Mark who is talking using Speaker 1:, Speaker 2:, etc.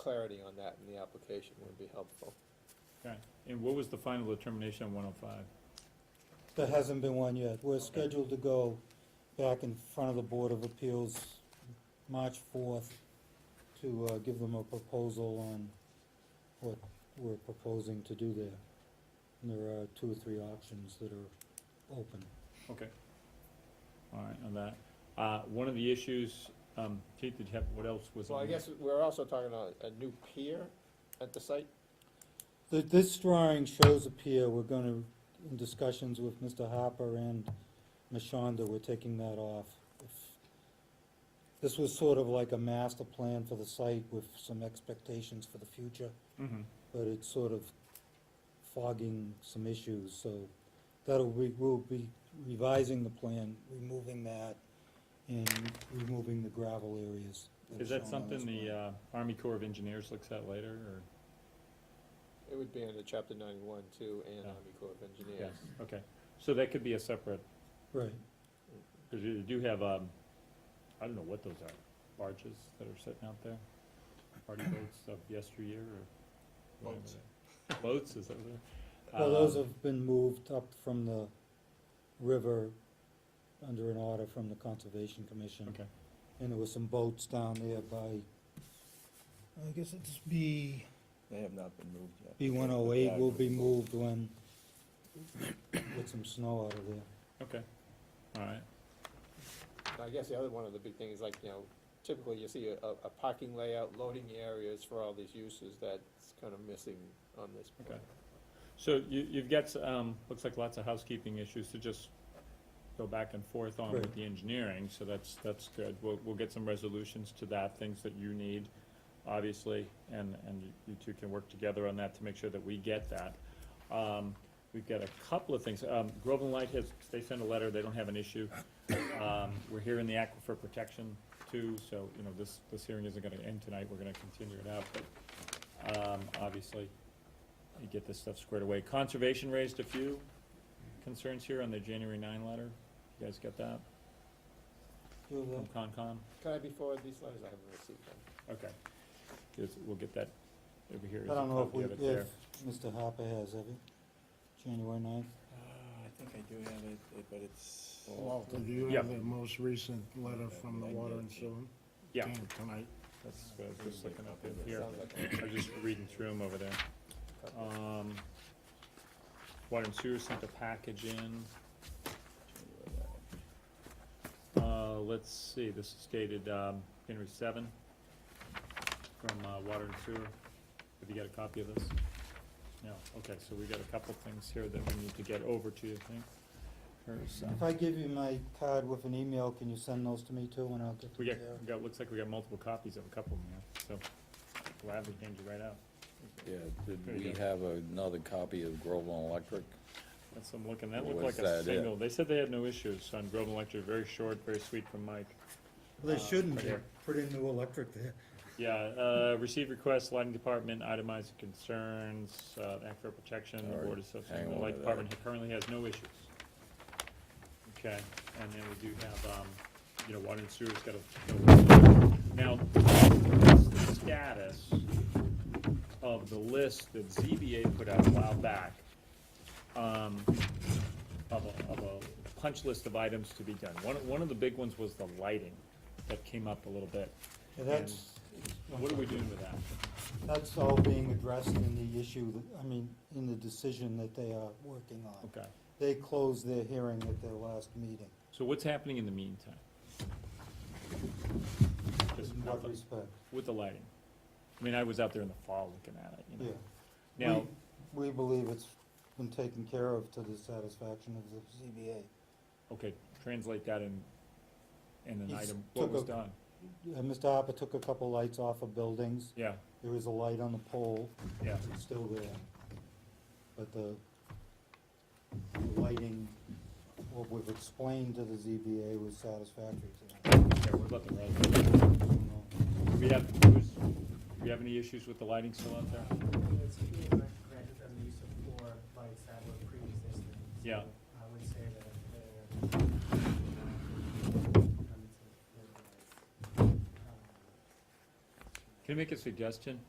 Speaker 1: clarity on that in the application would be helpful.
Speaker 2: Okay, and what was the final determination on one oh five?
Speaker 3: There hasn't been one yet. We're
Speaker 2: Okay.
Speaker 3: scheduled to go back in front of the Board of Appeals March fourth to uh, give them a proposal on what we're proposing to do there. And there are two or three options that are open.
Speaker 2: Okay. All right, on that. Uh, one of the issues, um, Keith, did you have, what else was?
Speaker 1: Well, I
Speaker 2: on there?
Speaker 1: guess we're also talking about a new pier at the site.
Speaker 3: Th- This drawing shows a pier. We're gonna, in discussions with Mr. Harper and Mashonda, we're taking that off. If- This was sort of like a master plan for the site with some expectations for the future,
Speaker 2: Mhm.
Speaker 3: but it's sort of fogging some issues, so that'll, we will be revising the plan, removing that, and removing the gravel areas. are
Speaker 2: Is that
Speaker 3: shown on this
Speaker 2: something the,
Speaker 3: plan.
Speaker 2: uh, Army Corps of Engineers looks at later, or?
Speaker 1: It would be under chapter ninety-one too and
Speaker 2: Yeah.
Speaker 1: Army Corps of Engineers.
Speaker 2: Okay, so that could be a separate, uh,
Speaker 3: Right.
Speaker 2: because you do have, um, I don't know what those are, barges that are sitting out there? Party boats of yesteryear, or? whatever
Speaker 1: Boats.
Speaker 2: they- Boats, is that what they're?
Speaker 3: Well, those
Speaker 2: Um,
Speaker 3: have been moved up from the river under an order from the Conservation Commission.
Speaker 2: Okay,
Speaker 3: And there were some boats down there by, I guess it's B,
Speaker 4: They have not been moved yet.
Speaker 3: B one oh eight will be moved when, get some snow out of there.
Speaker 2: okay, all right,
Speaker 1: And I guess the other one of the big things, like, you know, typically you see a, a parking layout, loading areas for all these uses that's kind of missing on this. plan.
Speaker 2: Okay. so you, you've got, s- um, looks like lots of housekeeping issues to just go back and forth on with
Speaker 3: Right.
Speaker 2: the engineering, so that's, that's good. We'll, we'll get some resolutions to that, things that you need, obviously, and, and you- you two can work together on that to make sure that we get that. Um, we've got a couple of things, um, Groveland Light has, they sent a letter, they don't have an issue. Um, we're hearing the aquifer protection too, so, you know, this, this hearing isn't gonna end tonight, we're gonna continue it out, but, um, obviously, you get this stuff squared away. Conservation raised a few concerns here on the January nine letter, you guys get that
Speaker 3: Do you
Speaker 2: from
Speaker 3: have
Speaker 2: Concom?
Speaker 1: Can I be forwarded these letters? I haven't received them.
Speaker 2: Okay, Yes, we'll get that over here.
Speaker 3: that? I don't know if
Speaker 2: Copy
Speaker 3: we,
Speaker 2: of it there.
Speaker 3: if Mr. Harper has, have you? January ninth?
Speaker 4: I think I do have it, but it's.
Speaker 5: Walter, do you
Speaker 2: Yeah.
Speaker 5: have the most recent letter from the water and sewer?
Speaker 2: Yeah,
Speaker 5: Came Tonight,
Speaker 2: that's what I was just looking up in here.
Speaker 1: Sounds like
Speaker 2: I was just reading through them over there. Um, water and sewer sent a package in. Uh, let's see, this is dated, um, January seven from, uh, water and sewer. Have you got a copy of this? No, okay, so we got a couple things here that we need to get over to, you think? Or some-
Speaker 3: If I give you my card with an email, can you send those to me too, and I'll get
Speaker 2: We
Speaker 3: them
Speaker 2: got,
Speaker 3: there?
Speaker 2: we got, looks like we got multiple copies of a couple of them, here, so gladly hand you right out.
Speaker 6: Yeah,
Speaker 2: There
Speaker 6: did
Speaker 2: you
Speaker 6: we
Speaker 2: go.
Speaker 6: have another copy of Groveland Electric?
Speaker 2: That's what I'm looking, that
Speaker 6: Or
Speaker 2: looked like
Speaker 6: was
Speaker 2: a
Speaker 6: that it?
Speaker 2: single, they said they had no issues on Groveland Electric, very short, very sweet from Mike.
Speaker 3: Well,
Speaker 2: uh,
Speaker 3: They shouldn't,
Speaker 2: right
Speaker 3: they
Speaker 2: here.
Speaker 3: put in new electric there.
Speaker 2: Yeah, uh, receive requests, lighting department, itemized concerns, uh, act for protection, the
Speaker 6: All right,
Speaker 2: board association,
Speaker 6: hang
Speaker 2: the
Speaker 6: on
Speaker 2: light
Speaker 6: to that.
Speaker 2: department currently has no issues. Okay, and then we do have, um, you know, water and sewer's got a, now, what's the status of the list that ZBA put out a while back? Um, of a, of a punch list of items to be done, one, one of the big ones was the lighting that came up a little bit.
Speaker 3: Yeah, That's,
Speaker 2: What are we doing with that?
Speaker 3: that's all being addressed in the issue, that- I mean, in the decision that they are working on.
Speaker 2: Okay,
Speaker 3: They closed their hearing at their last meeting,
Speaker 2: so what's happening in the meantime? Just
Speaker 3: in
Speaker 2: with
Speaker 3: what
Speaker 2: the-
Speaker 3: respect,
Speaker 2: with the lighting? I mean, I was out there in the fall looking at it, you
Speaker 3: yeah.
Speaker 2: know? Now,
Speaker 3: We we believe it's been taken care of to the satisfaction of the ZBA.
Speaker 2: okay, translate that in, in an
Speaker 3: He's
Speaker 2: item, what
Speaker 3: took
Speaker 2: was
Speaker 3: a-
Speaker 2: done?
Speaker 3: Uh, Mr. Harper took a couple lights off of buildings,
Speaker 2: Yeah,
Speaker 3: there is a light on the pole,
Speaker 2: yeah,
Speaker 3: it's still there. But the the lighting, what we've explained to the ZBA was satisfactory to them.
Speaker 2: yeah, what about the road?
Speaker 3: I don't know.
Speaker 2: Do we have, do we have any issues with the lighting still out there?
Speaker 7: It's being granted from the use of four lights that were pre-existing. So
Speaker 2: Yeah.
Speaker 7: I would say that they're. uh, um, um,
Speaker 2: Can I make a suggestion?